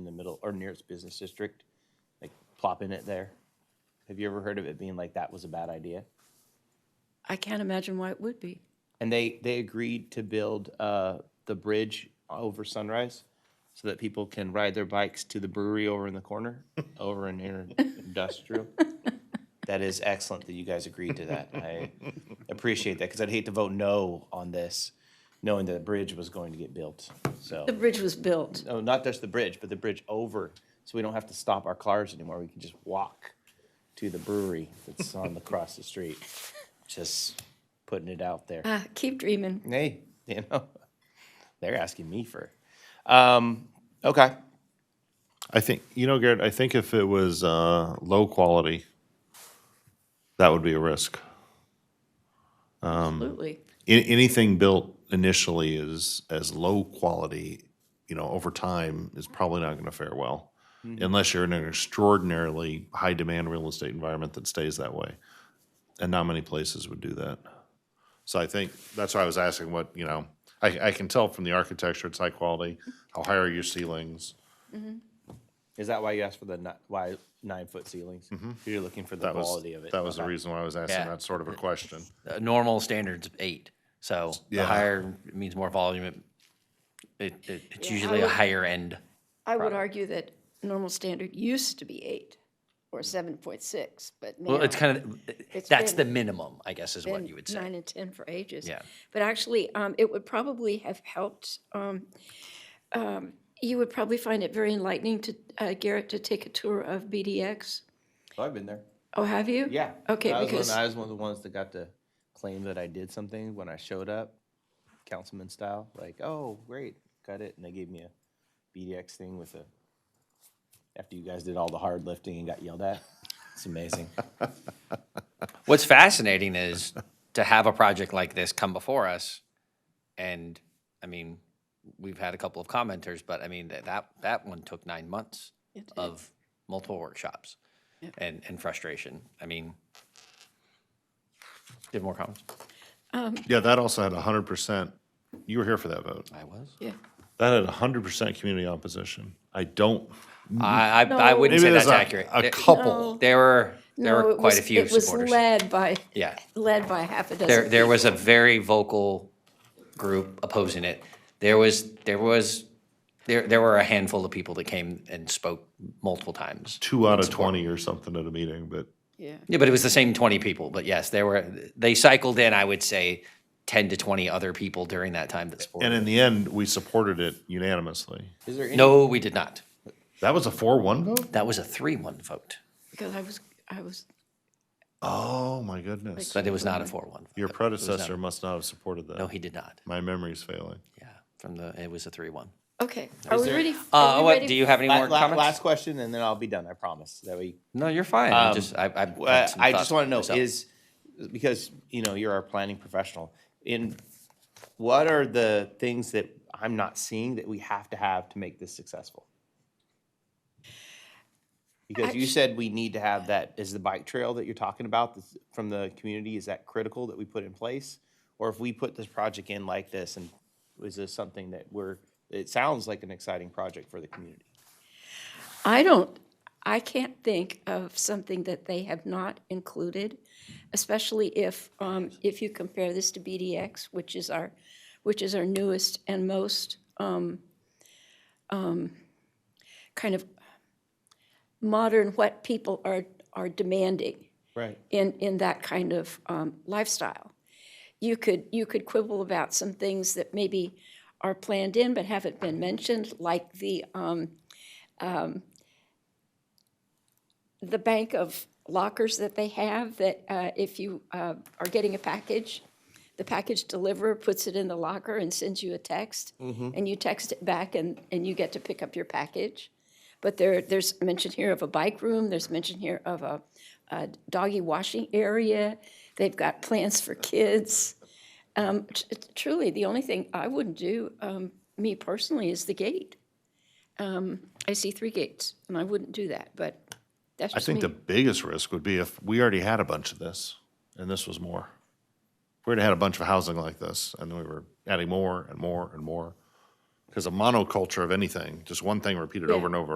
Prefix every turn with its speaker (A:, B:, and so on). A: middle or nearest business district, like plopping it there? Have you ever heard of it being like that was a bad idea?
B: I can't imagine why it would be.
A: And they they agreed to build uh, the bridge over Sunrise, so that people can ride their bikes to the brewery over in the corner, over in here industrial. That is excellent that you guys agreed to that. I appreciate that because I'd hate to vote no on this, knowing that the bridge was going to get built. So
B: The bridge was built.
A: no, Oh, not just the bridge, but the bridge over, so we don't have to stop our cars anymore. We can just walk to the brewery that's on the across the street. Just putting it out there.
B: Ah, keep
C: Mm-hmm.
B: dreaming.
A: Hey, you know, they're asking me for. Um, okay.
D: I think you know, Garrett. I think if it was uh, low quality, that would be a risk.
B: Absolutely.
D: A- anything built initially is as low quality, you know, over time is probably not going to fare well,
A: Hmm.
D: unless you're in an extraordinarily high demand real estate environment that stays that way, and not many places would do that. So I think that's why I was asking what you know. I, I can tell from the architecture it's high quality. How high are your ceilings?
A: Is that why you asked for the ni- why nine foot ceilings? You're looking for the
D: Mm-hmm. That was
A: quality of it.
D: that was the
A: Okay.
D: reason why I was asking
C: Yeah.
D: that sort of a question.
C: Uh, normal standards eight. So
D: Yeah.
C: the higher it means more volume. It, it, it it's
B: Yeah, I
C: usually a
B: would-
C: higher end.
B: I would argue that normal standard used to be eight or 7.6, but now
C: Well, it's kind of
B: It's
C: that's
B: been-
C: the minimum, I guess, is what
B: been
C: you would say.
B: Nine and 10 for ages.
C: Yeah.
B: But actually, um, it would probably have helped. Um, um, you would probably find it very enlightening to uh, Garrett to take a tour of BDX.
A: Oh, I've been there.
B: Oh, have you?
A: Yeah.
B: Okay,
A: I was,
B: because
A: one, I was one of the ones that got to claim that I did something when I showed up, councilman style. Like, oh, great, got it, and they gave me a BDX thing with a. After you guys did all the hard lifting and got yelled at, it's amazing.
C: What's fascinating is to have a project like this come before us, and I mean, we've had a couple of commenters, but I mean that that, that one took nine months of multiple workshops and and frustration. I mean, do you have more comments?
D: Yeah, that also had hundred percent. You were here for that vote.
C: I was.
B: yeah.
D: That had hundred percent community opposition. I don't.
C: I I, I wouldn't say
D: Mm-hmm. there's
C: that's
D: a-
C: accurate.
D: A
C: There-
D: couple.
C: There were there
B: No,
C: were
B: it
C: quite
B: was-
C: a few
B: It was
C: supporters.
B: led by,
C: Yeah,
B: led by half a dozen.
C: there there was a very vocal group opposing it. There was there was there there were a handful of people that came and spoke multiple times.
D: Two out of twenty or something at a meeting, but
B: Yeah.
C: Yeah, but it was the same twenty people. But yes, there were they cycled in. I would say ten to twenty other people during that time that
D: and
C: supported.
D: in the end, we supported it unanimously.
A: Is there any?
C: No, we did not.
D: That was a four-one vote.
C: That was a three-one vote,
B: Because I was, I was,
D: Oh my goodness!
C: but it was not a four-one.
D: Your predecessor must not have supported that.
C: No, he did not.
D: My memory's failing.
C: Yeah, from the it was a three-one.
B: okay. Are we
A: there-
B: ready? are
C: Uh,
B: we
C: what,
B: ready
C: do you have any
A: La-
C: more
A: la-
C: comments?
A: last question, and then I'll be done. I promise. That we.
C: No, you're fine. I'm just, I, Um, I,
A: Uh, I just want to know is because you know you're our planning professional. In what are the things that I'm not seeing that we have to have to make this successful? Because you
B: Actu-
A: said we need to have that. Is the bike trail that you're talking about that's from the community is that critical that we put in place, or if we put this project in like this, and is this something that we're? It sounds like an exciting project for the community.
B: I don't, I can't think of something that they have not included, especially if, um, if you compare this to BDX, which is our, which is our newest and most, um, um, kind of modern, what people are, are demanding.
A: Right.
B: in, in that kind of um, lifestyle. You could, you could quibble about some things that maybe are planned in but haven't been mentioned, like the, um, um, the bank of lockers that they have, that uh, if you uh, are getting a package, the package deliverer puts it in the locker and sends you a text, and you text it back, and, and you get to pick up your package. But there, there's mention here of a bike room, there's mention here of a, a doggy washing area, they've got plans for kids. Um, t- t- Truly, the only thing I wouldn't do, um, me personally, is the gate. Um, I see three gates, and I wouldn't do that, but that's
D: I
B: just me.
D: think the biggest risk would be if we already had a bunch of this, and this was more. If We already had a bunch of housing like this, and we were adding more and more and more. Because a monoculture of anything, just one thing repeated
B: Yeah.
D: over and over